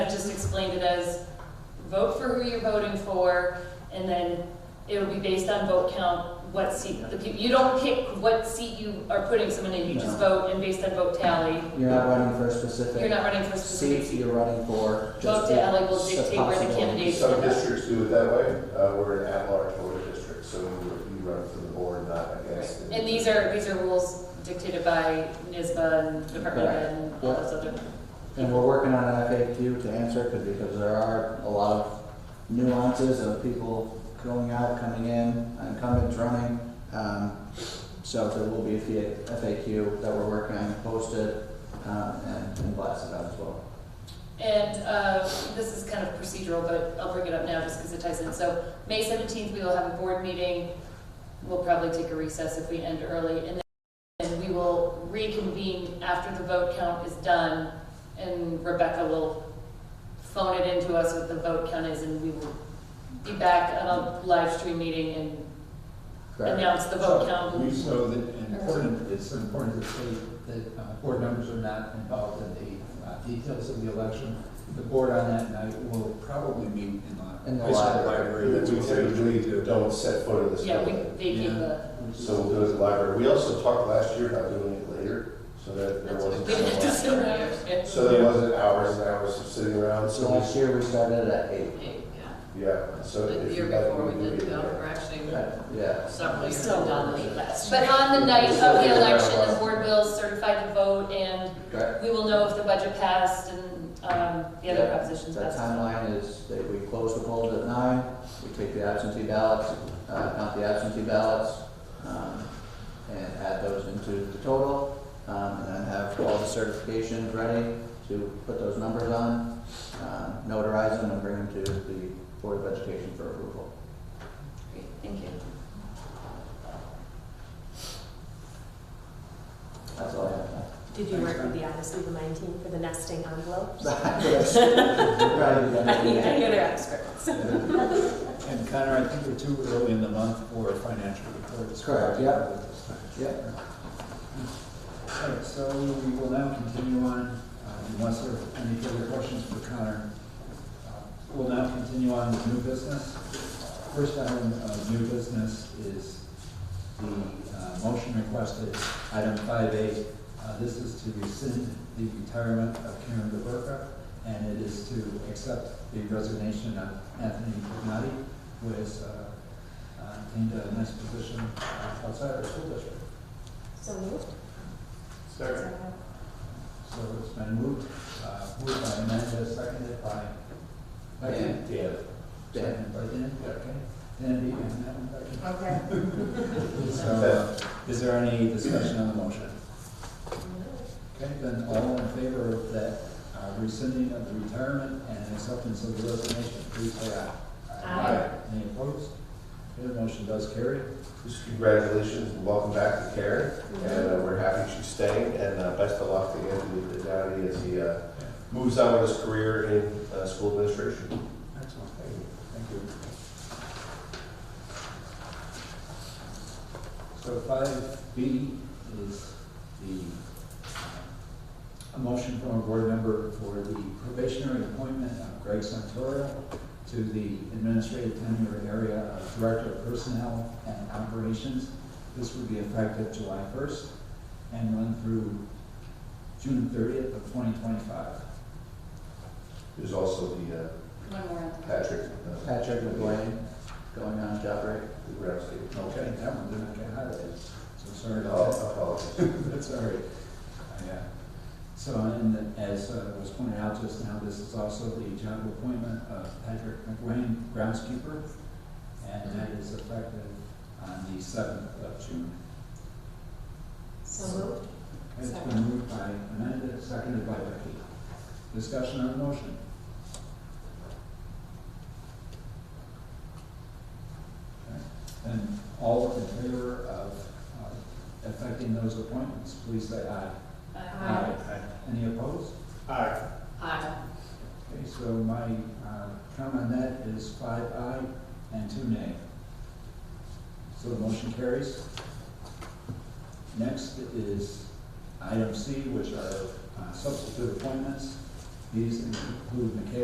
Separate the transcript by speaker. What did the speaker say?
Speaker 1: explained it as, vote for who you're voting for, and then it'll be based on vote count, what seat, the people, you don't pick what seat you are putting someone in, you just vote, and based on vote tally,
Speaker 2: You're not running for
Speaker 1: you're
Speaker 2: a specific
Speaker 1: not running for a specific
Speaker 2: seat,
Speaker 1: seat.
Speaker 2: you're running for
Speaker 1: Vote
Speaker 2: just the
Speaker 1: to alley will dictate where the
Speaker 2: possibilities.
Speaker 1: candidates
Speaker 3: Some
Speaker 1: end up.
Speaker 3: districts do it that way, uh, we're an at-large voter district, so you run for the board, not
Speaker 1: Right.
Speaker 3: against.
Speaker 1: And these are, these are rules dictated by NISBA and Department of Ed and all those other.
Speaker 2: And we're working on an FAQ to answer it, 'cause- because there are a lot of nuances of people going out, coming in, incumbents running. Um, So there will be a fee- FAQ that we're working on, posted, um, and and blasted out as well.
Speaker 1: And uh, this is kind of procedural, but I'll bring it up now just because it ties in. So May 17th, we will have a board meeting. We'll probably take a recess if we end early. And then we will reconvene after the vote count is done. And Rebecca will phone it into us what the vote count is and we will be back on a live stream meeting and
Speaker 2: Correct.
Speaker 1: announce the vote count.
Speaker 4: We know that an important, it's important to say that uh, board members are not involved in the uh, details of the election. The board on that night will probably meet in the.
Speaker 2: In the
Speaker 4: high school
Speaker 2: library.
Speaker 3: We
Speaker 4: that's
Speaker 3: we
Speaker 4: what they usually
Speaker 3: typically
Speaker 4: do.
Speaker 3: don't set foot in this
Speaker 1: Yeah, we
Speaker 3: building,
Speaker 1: vacate the.
Speaker 4: Yeah.
Speaker 3: so we'll do it at the library. We also talked last year about doing it later, so that there
Speaker 1: That's what
Speaker 3: wasn't.
Speaker 1: we did this year.
Speaker 3: So there wasn't hours and hours of sitting around,
Speaker 2: So
Speaker 3: so,
Speaker 2: last year we started at eight.
Speaker 5: Yeah,
Speaker 3: we- yeah, so.
Speaker 5: but the
Speaker 3: if
Speaker 5: year
Speaker 3: you got-
Speaker 5: before we
Speaker 3: we'd
Speaker 5: did,
Speaker 3: be
Speaker 5: no,
Speaker 3: there.
Speaker 5: or actually
Speaker 2: Yeah.
Speaker 5: several
Speaker 1: We
Speaker 5: years
Speaker 1: still
Speaker 5: ago.
Speaker 1: dominate last But on the night of the election, the board will certify the vote, and
Speaker 2: Correct.
Speaker 1: we will know if the budget passed and um, the other
Speaker 2: Yeah,
Speaker 1: propositions
Speaker 2: That
Speaker 1: passed.
Speaker 2: timeline is that we close the polls at nine, we take the absentee ballots, uh, count the absentee ballots, um, and add those into the total, um, and then have all the certifications ready to put those numbers on, um, notarize them and bring them to the Board of Education for approval.
Speaker 1: Great, Thank you.
Speaker 2: That's all I have.
Speaker 6: Did you work with the Odyssey of the 19 for the nesting envelopes? I need, I
Speaker 2: Right,
Speaker 6: need other experts.
Speaker 4: uh, And Connor, I think we're too early in the month for financial reports.
Speaker 2: Correct, yeah. yeah.
Speaker 4: All right, so we will now continue on, uh, unless there are any further questions for Connor. Uh, We'll now continue on with new business. First item of new business is the uh, motion requested, item five A. Uh, This is to rescind the retirement of Karen DeBerka, and it is to accept the resignation of Anthony Pagnotti, who has uh, uh, obtained a nice position uh, outside our school district.
Speaker 6: So moved?
Speaker 4: So it's been moved, uh, moved by Amanda, seconded by,
Speaker 2: Dan.
Speaker 4: Dan. Seconded by Dan, okay. Dan, you can have
Speaker 6: Okay.
Speaker 4: it. So, uh, is there any discussion on the motion? Okay, then all in favor of that uh, rescinding of the retirement and acceptance of the resignation, please say aye.
Speaker 3: Aye.
Speaker 4: Any opposed? Okay, the motion does carry.
Speaker 3: Just congratulations and welcome back to Karen, and uh, we're happy she's staying, and uh, best of luck to Anthony Downey as he uh, moves on with his career in uh, school administration.
Speaker 4: Excellent, thank you. Thank you. So five B is the uh, a motion from a board member for the probationary appointment of Greg Santora to the administrative tenure area of Director of Personnel and Operations. This would be effective July first and run through June thirtieth of twenty twenty-five.
Speaker 3: There's also the uh,
Speaker 1: One more.
Speaker 3: Patrick uh,
Speaker 2: Patrick McGuane, going on job break.
Speaker 3: Ramsey.
Speaker 4: Okay, that one didn't get highlighted, so sorry
Speaker 3: Oh,
Speaker 4: about that.
Speaker 3: apologies.
Speaker 4: That's all right. Yeah. So, and then as uh, was pointed out just now, this is also the job appointment of Patrick McWayne, groundskeeper, and that is effective on the seventh of June.
Speaker 6: So moved?
Speaker 4: Okay, It's been moved by Amanda, seconded by Becky. Discussion on the motion. Okay, And all in favor of uh, affecting those appointments, please say aye.
Speaker 1: Uh, Aye.
Speaker 4: Any opposed?
Speaker 5: Aye.
Speaker 4: Okay, so my uh, count on that is five aye and two nay. So the motion carries. Next is item C, which are uh, substitute appointments. These include Michaela